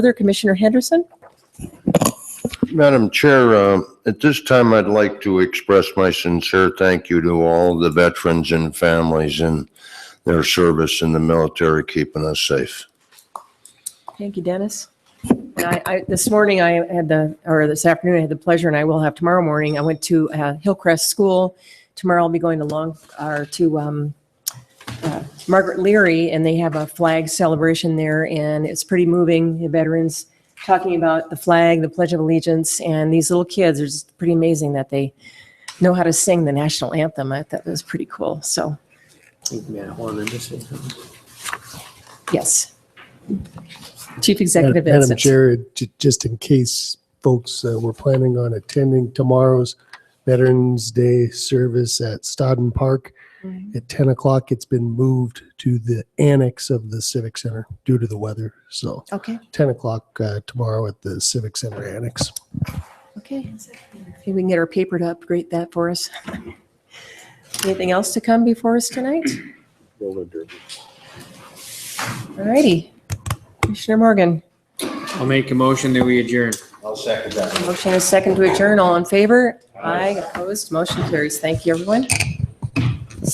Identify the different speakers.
Speaker 1: Further, Commissioner Henderson?
Speaker 2: Madam Chair, uh, at this time, I'd like to express my sincere thank you to all the veterans and families in their service in the military, keeping us safe.
Speaker 1: Thank you, Dennis. And I, I, this morning I had the, or this afternoon I had the pleasure, and I will have tomorrow morning, I went to uh, Hillcrest School. Tomorrow I'll be going to Long, or to um, uh, Margaret Leary, and they have a flag celebration there, and it's pretty moving. The veterans talking about the flag, the Pledge of Allegiance, and these little kids, it's pretty amazing that they know how to sing the national anthem. I thought that was pretty cool, so,
Speaker 3: Think marijuana industry.
Speaker 1: yes. Chief Executive
Speaker 4: Madam
Speaker 1: Vincent.
Speaker 4: Chair, ju- just in case folks uh, were planning on attending tomorrow's Veterans Day service at Stodden Park at 10 o'clock, it's been moved to the annex of the Civic Center due to the weather. So
Speaker 1: Okay.
Speaker 4: 10 o'clock uh, tomorrow at the Civic Center annex.
Speaker 1: Okay. Maybe we can get our paper to upgrade that for us. Anything else to come before us tonight? All righty. Commissioner Morgan,
Speaker 5: I'll make a motion that we adjourn.
Speaker 1: motion is second to adjourn. All in favor? Aye, opposed, motion carries. Thank you, everyone.